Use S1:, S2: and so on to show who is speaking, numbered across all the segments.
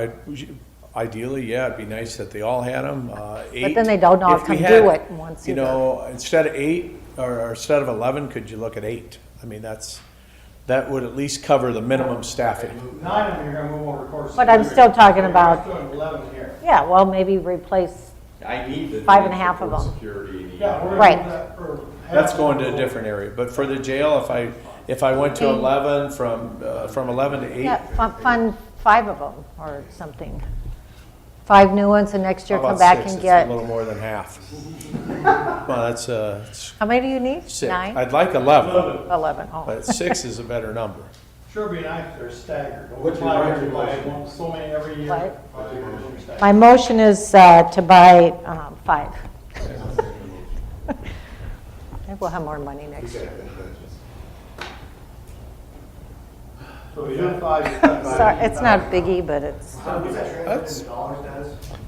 S1: I- Ideally, yeah, it'd be nice that they all had uh, them. But
S2: then they don't all come do it once
S1: You know, instead of eight, or or instead of 11, could you look at eight? I mean, that's, that would at least cover the minimum staffing.
S3: Nine of them you're gonna move over the course. of
S2: But I'm
S3: the year.
S2: still talking
S3: You're
S2: about-
S3: doing Eleven here.
S2: Yeah, well, maybe replace,
S4: I need the.
S2: Five and a half of
S4: for
S2: them.
S4: Security. and the-
S3: Yeah, we're
S2: Right.
S3: gonna do that for. half
S1: That's
S3: of
S1: going to
S3: the-
S1: a different area. But for the jail, if I, if I went to 11, from, uh, from 11 to 8,
S2: yeah, fun- fund five of them or something. Five new ones and next
S1: how
S2: year
S1: about
S2: come back
S1: six?
S2: and
S1: It's
S2: get,
S1: a little more than half. Well, that's uh, it's
S2: how many do you need?
S1: six.
S2: Nine?
S1: I'd like 11,
S3: Eleven.
S2: Eleven, oh.
S1: but six is a better number.
S3: Sure be nice if they're staggered.
S4: What's your
S3: Like,
S4: writing
S3: like,
S4: motion?
S3: So many every year.
S2: What?
S3: Five years or staggered.
S2: My motion is uh, to buy um, five. Maybe we'll have more money next year.
S3: So we do five, you cut five.
S2: Sorry, it's not biggie, but it's,
S1: That's,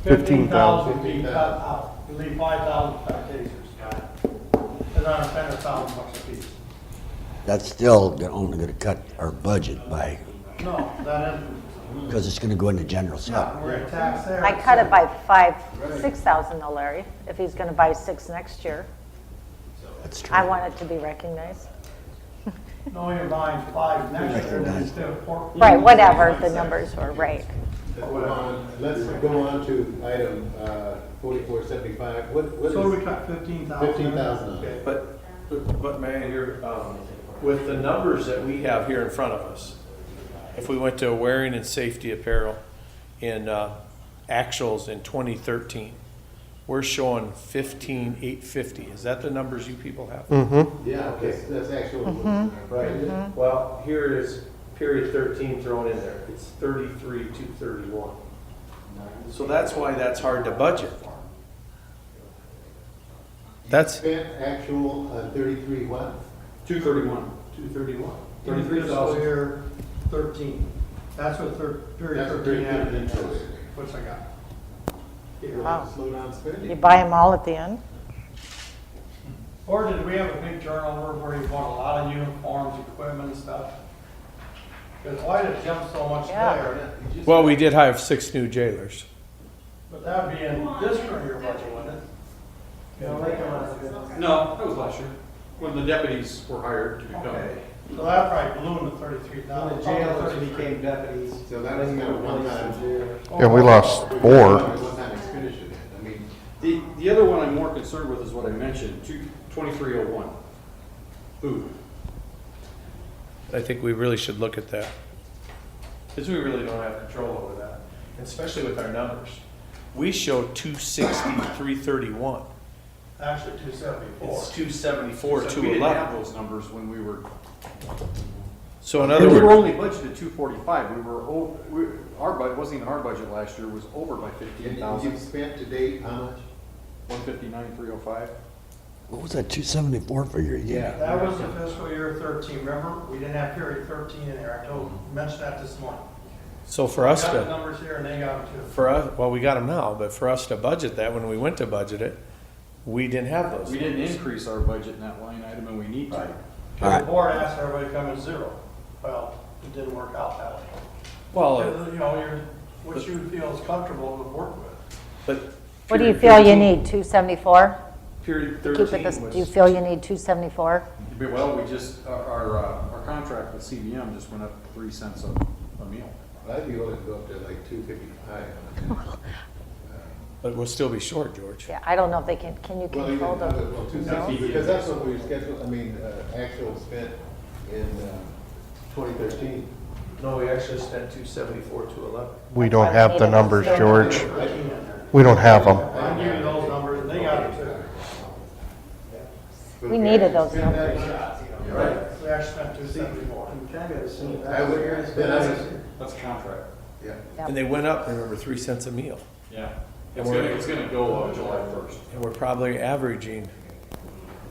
S3: Fifteen thousand being cut out. You leave five thousand for tasers. Cause I'm spending a thousand bucks a piece.
S5: That's still they're only going to cut our budget by,
S3: No, that isn't,
S5: because it's going to go into general
S3: no,
S5: sub.
S3: we're gonna tax there.
S2: I cut it by five, six thousand though, Larry, if he's gonna buy six next year.
S5: That's true.
S2: I want it to be recognized.
S3: No, you're buying five next year, then instead of four.
S2: Right, whatever the numbers were, right.
S6: Let's go on to item uh, forty-four seventy-five. What, what
S3: So we
S6: is
S3: cut fifteen thousand.
S6: fifteen thousand?
S1: But, but Mayor, you're, um, with the numbers that we have here in front of us, if we went to wearing and safety apparel in, uh, actuals in twenty thirteen, we're showing fifteen eight fifty. Is that the numbers you people have?
S6: Yeah, okay, that's actual.
S1: Mm-hmm.
S6: Right.
S1: Well, here it is, period thirteen thrown in there. It's thirty-three two thirty-one. So that's why that's hard to budget. That's.
S6: Spent actual uh, thirty-three what?
S1: Two thirty-one.
S6: Two thirty-one.
S3: In fiscal year thirteen, that's what thir, period
S6: That's what
S3: thirteen
S6: period
S3: added into
S6: 13
S3: it,
S6: is.
S3: which I got. Here.
S2: Wow.
S6: Slow down
S2: You
S6: spending.
S2: buy them all at the end?
S3: Or did we have a big turnover where you bought a lot of uniforms, equipment and stuff? Because why did it jump so much
S2: Yeah.
S3: there?
S1: Well, we did hire six new jailers.
S3: But that'd be in this current year budget, wouldn't it? You know, they come out of it.
S4: No, that was last year, when the deputies were hired to become.
S3: Okay. So that probably blew into thirty-three thousand. The jailers became deputies.
S6: So that doesn't matter one time.
S7: And we lost four.
S6: One time expenditure then. I mean,
S4: The, the other one I'm more concerned with is what I mentioned, two, twenty-three oh one. Food,
S1: I think we really should look at that. Because we really don't have control over that, especially with our numbers. We show two sixty, three thirty-one.
S3: Actually, two seventy-four.
S1: It's two seventy-four,
S4: so
S1: two
S4: we didn't have
S1: eleven.
S4: those numbers when we were,
S1: So in
S4: we
S1: other
S4: were
S1: words,
S4: only budgeted two forty-five, we were, o- we, our budget, wasn't even our budget last year, was over by fifteen
S6: and you've
S4: thousand,
S6: spent to date how much?
S4: one fifty-nine, three oh five.
S5: What was that 274 figure you gave me?
S3: That was the fiscal year thirteen, remember? We didn't have period thirteen in there. I told, mentioned that this morning.
S1: so for us
S3: Got the
S1: to,
S3: numbers here and they got them too.
S1: for us, well, we got them now, but for us to budget that, when we went to budget it, we didn't have those.
S4: We didn't increase our budget in that line item, and we need to.
S5: All
S3: The
S5: right.
S3: board asked everybody to come in zero. Well, it didn't work out that way.
S1: Well,
S3: Because, You know, you're, what you feel is comfortable to work with.
S1: but.
S2: What do you
S1: period
S2: feel you
S1: 13
S2: need, 274?
S4: Period
S2: Keep
S4: thirteen
S2: it
S4: was.
S2: this, do you feel you need 274?
S4: Yeah, Well, we just, our, our, uh, our contract with CBM just went up three cents a, a meal.
S6: I'd be willing to go up to like two fifty-five.
S1: But we'll still be short, George.
S2: Yeah, I don't know if they can, can you
S6: Well, even,
S2: control them?
S6: well, two sixty, because that's what we scheduled, I mean, uh, actual spent in uh, twenty thirteen.
S1: No, we actually spent two seventy-four, two eleven.
S7: We don't have the numbers, George.
S3: Thirteen in there.
S7: We don't have them.
S3: I knew those numbers, and they got it too.
S2: We needed those
S6: Right.
S3: We actually spent two seventy-four.
S6: I would, then I would,
S4: That's a contract.
S6: yeah.
S1: And they went up, remember, three cents a meal.
S4: Yeah.
S1: And
S4: It's gonna,
S1: we're-
S4: it's gonna go on July first.
S1: And we're probably averaging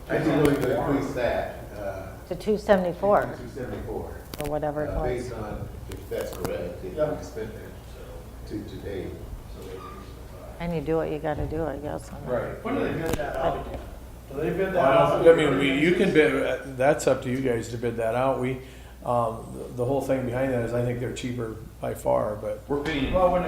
S6: I'd be willing to increase that, uh,
S2: To 274
S6: two seventy-four,
S2: or whatever it
S6: uh,
S2: was.
S6: based on if that's correct, if
S3: Yeah.
S6: we spent it to today.
S2: And you do what you gotta do, I guess.
S1: Right.
S3: When do they bid that out again? Do they bid that out?
S1: I mean, we, you can bid, uh, that's up to you guys to bid that out. We, um, the- the whole thing behind that is I think they're cheaper by far, but
S4: We're paying.
S3: Well, when it